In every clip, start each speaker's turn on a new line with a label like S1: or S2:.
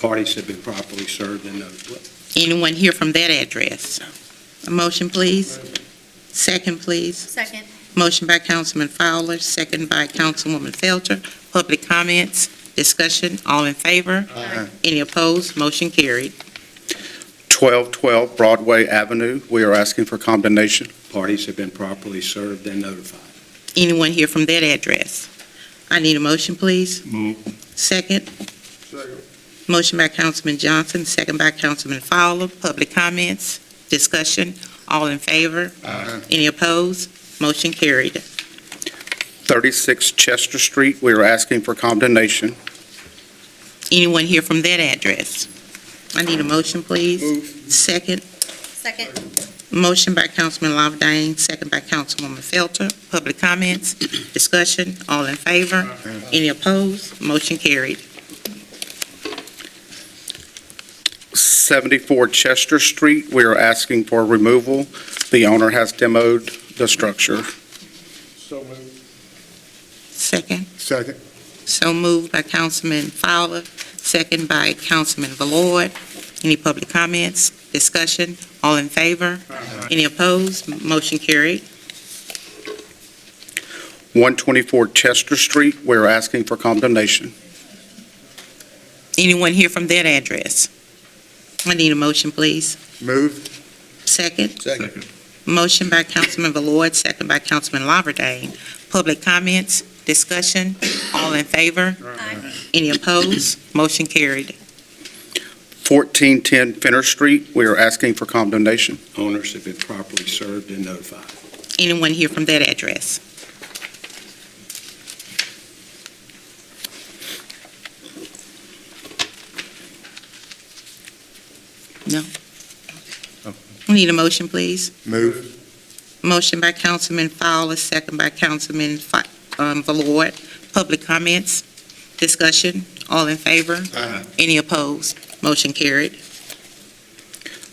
S1: parties have been properly served and notified.
S2: Anyone here from that address? A motion, please? Second, please.
S3: Second.
S2: Motion by Councilman Fowler, second by Councilwoman Felter. Public comments, discussion, all in favor?
S3: Aye.
S2: Any opposed? Motion carried.
S4: 1212 Broadway Avenue, we are asking for condemnation.
S1: Parties have been properly served and notified.
S2: Anyone here from that address? I need a motion, please.
S1: Move.
S2: Second. Motion by Councilman Johnson, second by Councilman Fowler. Public comments, discussion, all in favor? Any opposed? Motion carried.
S4: 36 Chester Street, we are asking for condemnation.
S2: Anyone here from that address? I need a motion, please. Second.
S3: Second.
S2: Motion by Councilman Lawberdine, second by Councilwoman Felter. Public comments, discussion, all in favor? Any opposed? Motion carried.
S4: 74 Chester Street, we are asking for removal. The owner has demoed the structure.
S5: So moved.
S2: Second.
S5: Second.
S2: So moved by Councilman Fowler, second by Councilman Valord. Any public comments, discussion, all in favor? Any opposed? Motion carried.
S4: 124 Chester Street, we are asking for condemnation.
S2: Anyone here from that address? I need a motion, please.
S5: Moved.
S2: Second.
S5: Second.
S2: Motion by Councilman Valord, second by Councilman Lawberdane. Public comments, discussion, all in favor?
S3: Aye.
S2: Any opposed? Motion carried.
S4: 1410 Finner Street, we are asking for condemnation.
S1: Owners have been properly served and notified.
S2: Anyone here from that address? No? We need a motion, please.
S5: Moved.
S2: Motion by Councilman Fowler, second by Councilman Fi- um, Valord. Public comments, discussion, all in favor?
S5: Aye.
S2: Any opposed? Motion carried.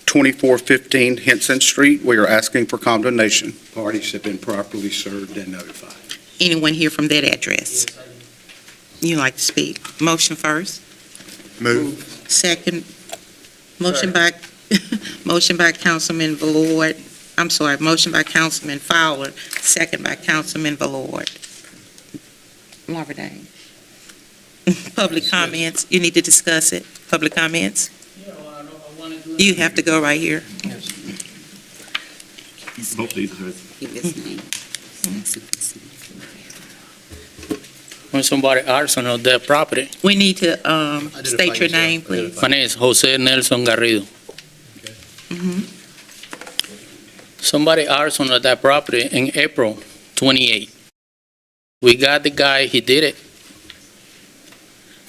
S4: 2415 Henson Street, we are asking for condemnation.
S1: Parties have been properly served and notified.
S2: Anyone here from that address? You like to speak? Motion first?
S5: Moved.
S2: Second, motion by, motion by Councilman Valord, I'm sorry, motion by Councilman Fowler, second by Councilman Valord. Marvin Day. Public comments, you need to discuss it, public comments? You have to go right here.
S6: Both these are
S7: when somebody arson of their property.
S2: We need to, um, state your name, please.
S7: My name is Jose Nelson Garrido.
S2: Mhm.
S7: Somebody arson of that property in April 28. We got the guy, he did it.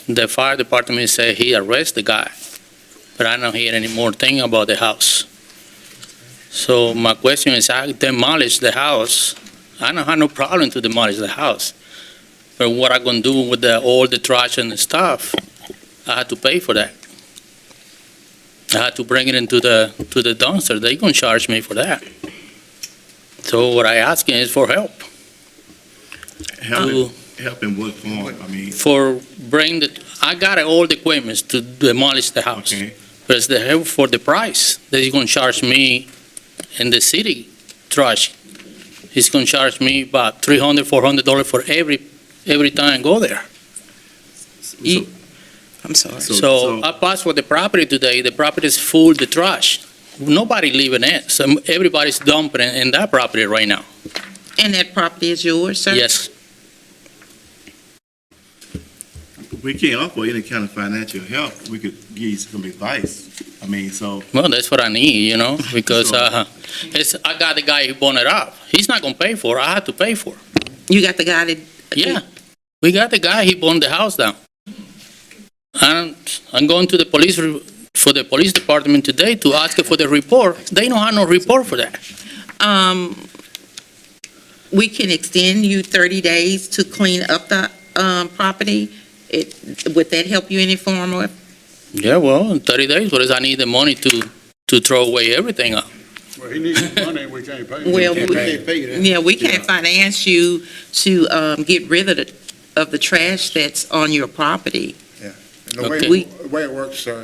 S7: The fire department said he arrested the guy, but I don't hear any more thing about the house. So my question is, I demolished the house. I don't have no problem to demolish the house. But what I gonna do with the, all the trash and the stuff? I had to pay for that. I had uh, to bring it into the, to the dumpster. They gonna charge me for that. So what I asking is for help,
S6: helping,
S7: to,
S6: helping what form, I mean,
S7: for bring the, I got all the equipments to demolish the house.
S6: okay,
S7: But it's the help for the price that he's gonna charge me in the city trash. He's gonna charge me about three hundred, four hundred dollar for every, every time I go there.
S2: You- I'm sorry.
S6: So-
S7: So I passed for the property today, the property is full, the trash. Nobody living in it, so everybody's dumping in in that property right now.
S2: And that property is yours, sir?
S7: Yes,
S6: we can't offer any kind of financial help, we could give you some advice, I mean, so,
S7: well, that's what I need, you know, because,
S6: So-
S7: uh, it's, I got the guy who bought it up. He's not gonna pay for it, I had to pay for it.
S2: You got the guy that?
S7: Yeah, we got the guy, he burned the house down. And I'm going to the police, re- for the police department today to ask for the report. They don't have no report for that.
S2: um, we can extend you 30 days to clean up the, um, property. It, would that help you any form or?
S7: Yeah, well, in 30 days, what is, I need the money to, to throw away everything up.
S5: Well, he needs money, and we can't pay him.
S2: Well,
S5: We
S2: we-
S5: can't pay you that.
S2: Yeah, we can't finance you to, um, get rid of the, of the trash that's on your property.
S5: The way,
S8: Okay.
S5: the way it works, sir,